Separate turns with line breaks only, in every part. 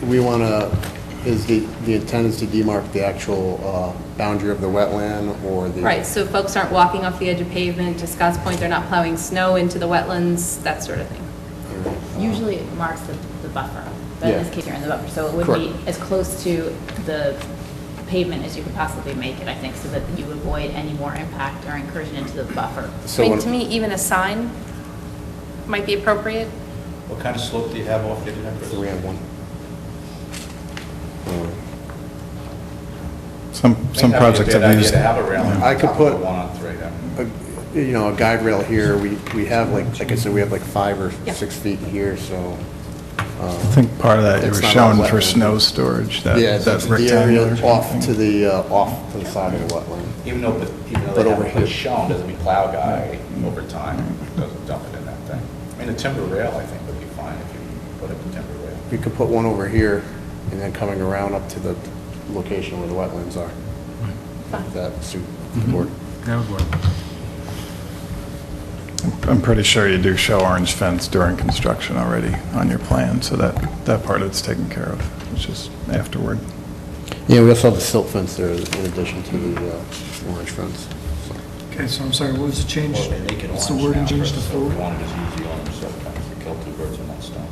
we want to, is the, the intent is to demarc the actual uh, boundary of the wetland or the...
Right, so folks aren't walking off the edge of pavement, to Scott's point, they're not plowing snow into the wetlands, that sort of thing.
Usually it marks the, the buffer, but in
Yeah.
this case, you're in the buffer, so it would be
Correct.
as close to the pavement as you could possibly make it, I think, so that you avoid any more impact or incursion into the buffer.
I
So
mean,
when-
to me, even a sign might be appropriate.
What kind of slope do you have off the edge of that?
Uh, We have one.
Some,
I
some
think that'd be a
projects
good
have
idea
used.
to have a railing
I could
on top of
put-
the One on three, yeah.
a- you know, Uh, a guide rail here, we, we have like, like I said, we have like five or
Yeah.
six feet here, so.
I think part of that you
It's
were
not all
showing for
wetland.
snow storage, that,
Yeah,
that
that's the area
rectangular.
off to
thing.
the, uh, off to the side of the wetland.
Even though, but even though
But
they
over
haven't put
here.
shown, doesn't mean plow guy over time doesn't dump it in that thing. I mean, a timber rail, I think, would be fine if you put up a timber rail.
We could put one over here and then coming around up to the location where the wetlands are. If That suit
Mm-hmm.
the board.
That would work.
I'm pretty sure you do show orange fence during construction already on your plan, so that, that part it's taken care of, it's just afterward.
Yeah, we also have the silt fence there in addition to the uh, orange fence. so.
Okay, so I'm sorry, what was the change?
Well, they make it
What's the
orange
wording
now,
change
so
to
if
four?
We wanted to use the orange, so we kill two birds with one stone.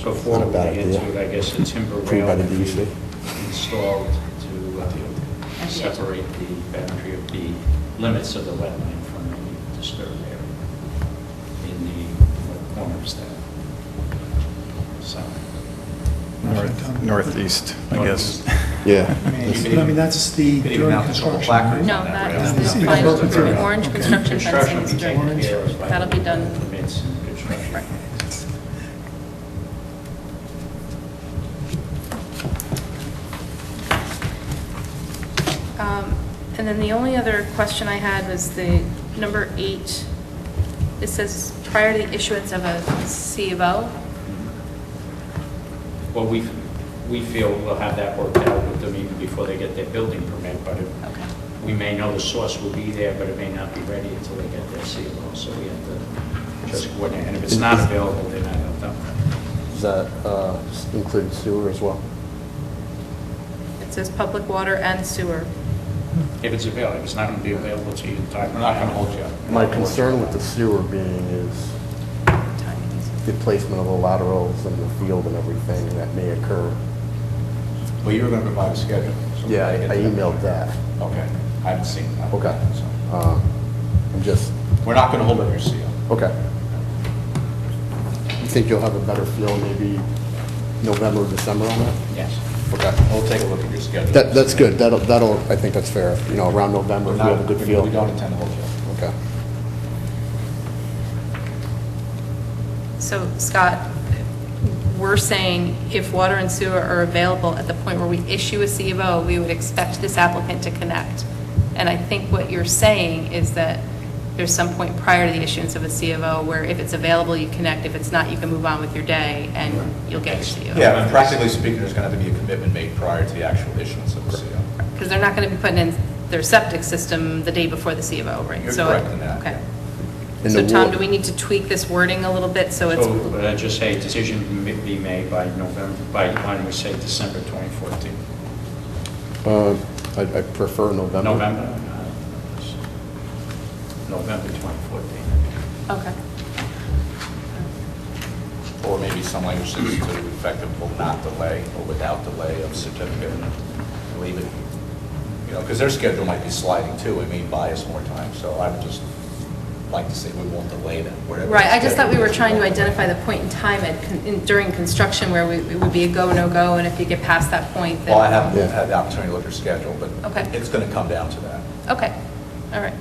So four
Not a
would
bad
be
idea.
into, I guess, a timber
Tree
rail
by the
would be
DEC.
installed to uh, separate the boundary of the limits of the wetland from the disturbed area in the corners there. So,
North- Northeast, I guess.
Yeah.
uh, I mean, it's- I mean, that's the
You could even
during
mount a couple
construction.
placards
right?
No,
on
that
that rail.
is
Is
the
it
final,
above
the
material?
orange
Okay.
construction fencing
construction would
is
be taken
during,
care of by.
that'll be done.
Permits and construction.
Right. Um, And then the only other question I had was the number eight. It says prior to the issuance of a C of O.
Well, we, we feel we'll have that worked out with them even before they get their building permit, but it-
Okay.
we may know the source will be there, but it may not be ready until they get their CLO, so we have to just coordinate. And if it's not available, then I don't know.
Does that uh, include sewer as well?
It says public water and sewer.
If it's available, if it's not going to be available to you in time.
We're not going to hold you up.
My concern with the sewer being is the placement of the laterals and the field and everything that may occur.
Well, you were going to provide a schedule. so we
Yeah, I
gotta get
I
to that.
emailed that.
Okay, I haven't seen that.
Okay.
so.
Uh,
um,
I'm just,
We're not going to hold up your seal.
okay. You think you'll have a better feel maybe November, December on that?
Yes.
Okay.
We'll take a look at your schedule.
That, that's good. That'll, that'll, I think that's fair. You know, around November,
We're
if we
not,
have a
we
good feel.
we don't intend to hold you up.
Okay.
So Scott, we're saying if water and sewer are available at the point where we issue a C of O, we would expect this applicant to connect. And I think what you're saying is that there's some point prior to the issuance of a C of O where if it's available, you connect. If it's not, you can move on with your day and you'll get your C of O.
Yeah, and practically speaking, there's going to have to be a commitment made prior to the actual issuance of the CO.
Because they're not going to be putting in their septic system the day before the C of O, right?
You're
So-
correct in that,
Okay.
And
So
the
Tom,
wa-
do we need to tweak this wording a little bit so it's?
So would I just say decision may be made by November, by, why don't we say December 2014?
Uh, I, I prefer November.
November? Uh, November 2014.
Okay.
Or maybe some language that's to the effect of will not delay or without delay of certificate, leave it. You know, because their schedule might be sliding too, it may buy us more time, so I would just like to say we won't delay them, whatever.
Right, I just thought we were trying to
schedule is.
identify the point in time at, con- in- during construction where we- it would be a go, no-go, and if you get past that point, then...
Well, I haven't
Yeah.
had the opportunity to look at your schedule, but
Okay.
it's going to come down to that.
Okay, all right.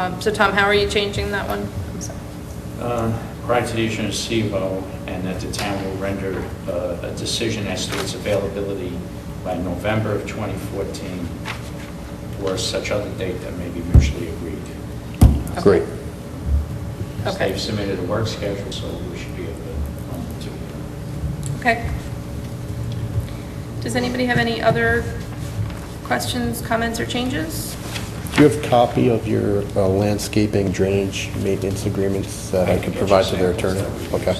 Um, So Tom, how are you changing that one? I'm sorry.
Uh, Prior to the issuance of CBO, and that the town will render uh, a decision as to its availability by November of 2014, or such other date that may be mutually agreed.
Great.
Because
Okay.
They've submitted a work schedule, so we should be able to, um, to
Okay. Does anybody have any other questions, comments, or changes?
Do you have copy of your uh, landscaping drainage maintenance agreements that I could provide to their attorney? Okay.